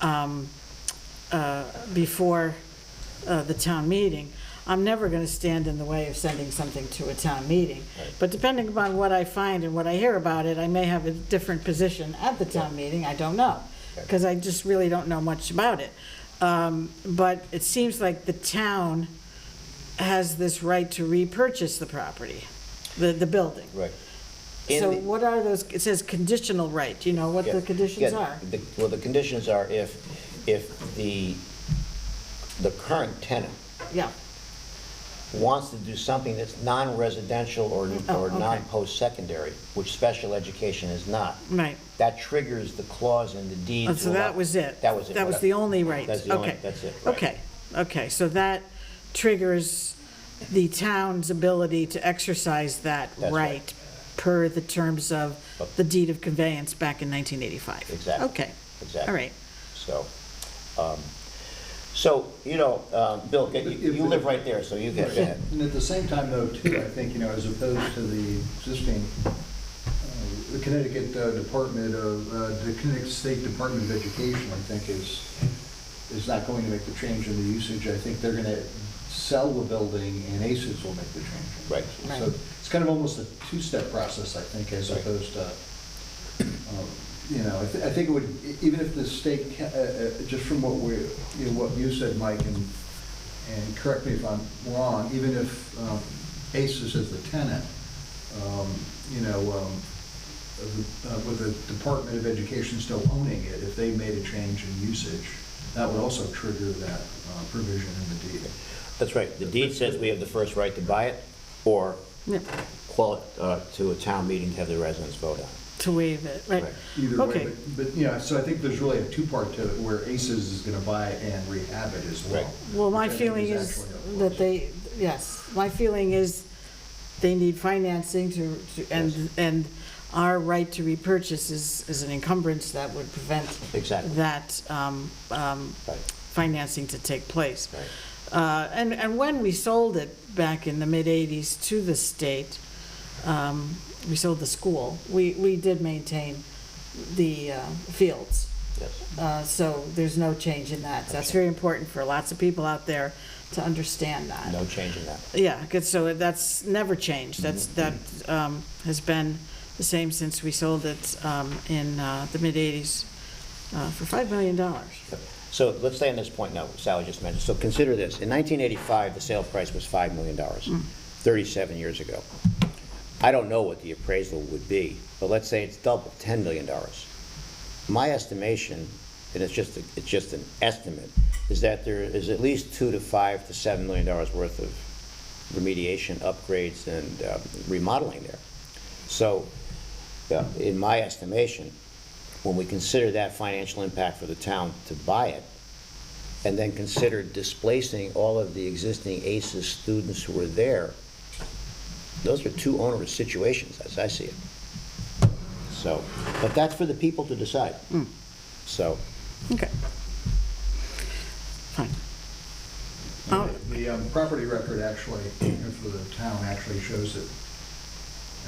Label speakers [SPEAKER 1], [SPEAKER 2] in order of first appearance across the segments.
[SPEAKER 1] um, uh, before uh, the town meeting, I'm never going to stand in the way of sending something to a town meeting. But depending upon what I find and what I hear about it, I may have a different position at the town meeting, I don't know, because I just really don't know much about it. Um, But it seems like the town has this right to repurchase the property, the, the building.
[SPEAKER 2] Right. And
[SPEAKER 1] So
[SPEAKER 2] the-
[SPEAKER 1] what are those, it says conditional right, do you know what
[SPEAKER 2] Yeah,
[SPEAKER 1] the conditions
[SPEAKER 2] yeah,
[SPEAKER 1] are?
[SPEAKER 2] the- Well, the conditions are if, if the, the current tenant
[SPEAKER 1] Yeah,
[SPEAKER 2] wants to do something that's non-residential or,
[SPEAKER 1] Oh,
[SPEAKER 2] or
[SPEAKER 1] okay.
[SPEAKER 2] non-post-secondary, which special education is not,
[SPEAKER 1] right.
[SPEAKER 2] that triggers the clause in the deed.
[SPEAKER 1] Oh, So
[SPEAKER 2] to allow-
[SPEAKER 1] that was it?
[SPEAKER 2] That was it.
[SPEAKER 1] That was
[SPEAKER 2] what I-
[SPEAKER 1] the only right?
[SPEAKER 2] That's the only,
[SPEAKER 1] Okay.
[SPEAKER 2] that's it. right.
[SPEAKER 1] Okay, okay, so that triggers the town's ability to exercise that
[SPEAKER 2] That's right.
[SPEAKER 1] right per the terms of the deed of conveyance back in 1985?
[SPEAKER 2] Exactly.
[SPEAKER 1] Okay,
[SPEAKER 2] Exactly.
[SPEAKER 1] all right.
[SPEAKER 2] So, um, so, you know, um, Bill, get- you
[SPEAKER 3] If-
[SPEAKER 2] you live right there, so you get that.
[SPEAKER 3] And at the same time, though, too, I think, you know, as opposed to the existing uh, the Connecticut uh, Department of, uh, the Connecticut State Department of Education, I think, is, is not going to make the change in the usage. I think they're going to sell the building and ACES will make the change. in
[SPEAKER 2] Right.
[SPEAKER 3] usage.
[SPEAKER 1] Right.
[SPEAKER 3] So it's kind of almost a two-step process, I think, as
[SPEAKER 2] Right.
[SPEAKER 3] opposed to, um, you know, I thi- I think it would, e- even if the state, ca- uh, uh, just from what we, you know, what you said, Mike, and, and correct me if I'm wrong, even if um, ACES is the tenant, um, you know, um, of the- uh, with the Department of Education still owning it, if they made a change in usage, that would also trigger that uh, provision in the deed.
[SPEAKER 2] That's right. The deed says we have the first right to buy it or
[SPEAKER 1] Yeah,
[SPEAKER 2] qual, uh, to a town meeting to have the residents vote on. it.
[SPEAKER 1] To waive it, right?
[SPEAKER 2] Right.
[SPEAKER 3] Either
[SPEAKER 1] Okay.
[SPEAKER 3] way, but- but, you know, so I think there's really a two-part to it, where ACES is going to buy it and rehab it as well.
[SPEAKER 2] Right.
[SPEAKER 1] Well, my
[SPEAKER 3] Which I think
[SPEAKER 1] feeling is
[SPEAKER 3] actually a
[SPEAKER 1] that
[SPEAKER 3] plus.
[SPEAKER 1] they, yes, my feeling is they need financing to, to- and, and our right to repurchase is, is an encumbrance that would prevent
[SPEAKER 2] Exactly.
[SPEAKER 1] that um, um,
[SPEAKER 2] Right.
[SPEAKER 1] financing to take place. Uh, And, and when we sold it back in the mid-'80s to the state, um, we sold the school, we, we did maintain the uh, fields.
[SPEAKER 2] Yes.
[SPEAKER 1] Uh, So there's no change in that. That's very important for lots of people out there to understand that.
[SPEAKER 2] No change in that.
[SPEAKER 1] Yeah, good, so that's never changed. That's, that um, has been the same since we sold it um, in uh, the mid-'80s for $5 million.
[SPEAKER 2] So let's stay on this point now, Sally just mentioned. So consider this, in 1985, the sale price was $5 million, 37 years ago. I don't know what the appraisal would be, but let's say it's double, $10 million. My estimation, and it's just, it's just an estimate, is that there is at least 2 to 5 to $7 million worth of remediation, upgrades, and uh, remodeling there. So, yeah, in my estimation, when we consider that financial impact for the town to buy it, and then consider displacing all of the existing ACES students who were there, those are two onerous situations, as I see it. So, but that's for the people to decide.
[SPEAKER 1] Hmm.
[SPEAKER 2] So,
[SPEAKER 1] Okay. Fine. Oh.
[SPEAKER 3] The um, property record actually, you know, for the town, actually shows it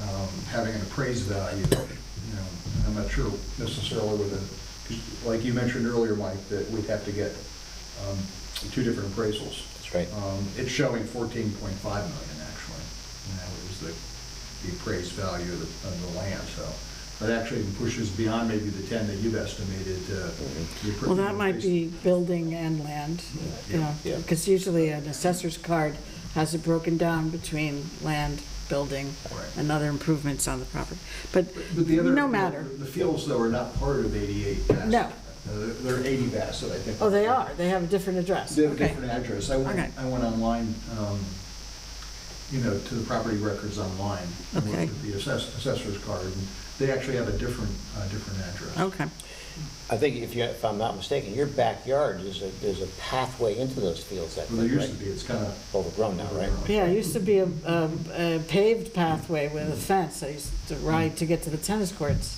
[SPEAKER 3] um, having an appraised value, you know, and I'm not sure necessarily with a, 'cause like you mentioned earlier, Mike, that we'd have to get um, two different appraisals.
[SPEAKER 2] That's right.
[SPEAKER 3] Um, It's showing 14.5 million, actually, and that was the, the appraised value of the, of the land, so. That actually even pushes beyond maybe the 10 that you've estimated. uh, the appra-
[SPEAKER 1] Mm-hmm. Well, that might be building and land, you know,
[SPEAKER 2] Yeah.
[SPEAKER 1] because usually an assessor's card has it broken down between land, building,
[SPEAKER 3] Right.
[SPEAKER 1] and other improvements on the property. But
[SPEAKER 3] But the other.
[SPEAKER 1] no matter.
[SPEAKER 3] The fields, though, are not part of 88 Bassett.
[SPEAKER 1] No.
[SPEAKER 3] Uh, They're they're 80 Bassett, I think.
[SPEAKER 1] Oh, they are. They have a different address.
[SPEAKER 3] They have a
[SPEAKER 1] Okay.
[SPEAKER 3] different address. I went,
[SPEAKER 1] Okay.
[SPEAKER 3] I went online, um, you know, to the property records online. and
[SPEAKER 1] Okay.
[SPEAKER 3] looked at The assess- assessor's card, and they actually have a different, uh different address.
[SPEAKER 1] Okay.
[SPEAKER 2] I think if you, if I'm not mistaken, your backyard is a, there's a pathway into those fields, I
[SPEAKER 3] Well, there
[SPEAKER 2] think,
[SPEAKER 3] used to
[SPEAKER 2] right?
[SPEAKER 3] be, it's kind of.
[SPEAKER 2] Overgrown now, right?
[SPEAKER 1] Yeah, it used to be a a- a paved pathway with a fence. I used to ride to get to the tennis courts.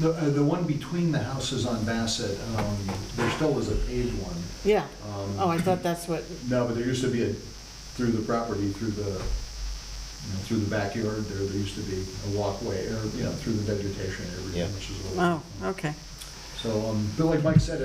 [SPEAKER 3] The, uh, the one between the houses on Bassett, um, there still is a paved one.
[SPEAKER 1] Yeah.
[SPEAKER 3] Um,
[SPEAKER 1] Oh, I thought that's what,
[SPEAKER 3] No, but there used to be a, through the property, through the, you know, through the backyard there, there used to be a walkway, or, you know, through the vegetation and
[SPEAKER 2] Yeah.
[SPEAKER 3] everything, which is a little.
[SPEAKER 1] oh, okay.
[SPEAKER 3] So, um, but like Mike said,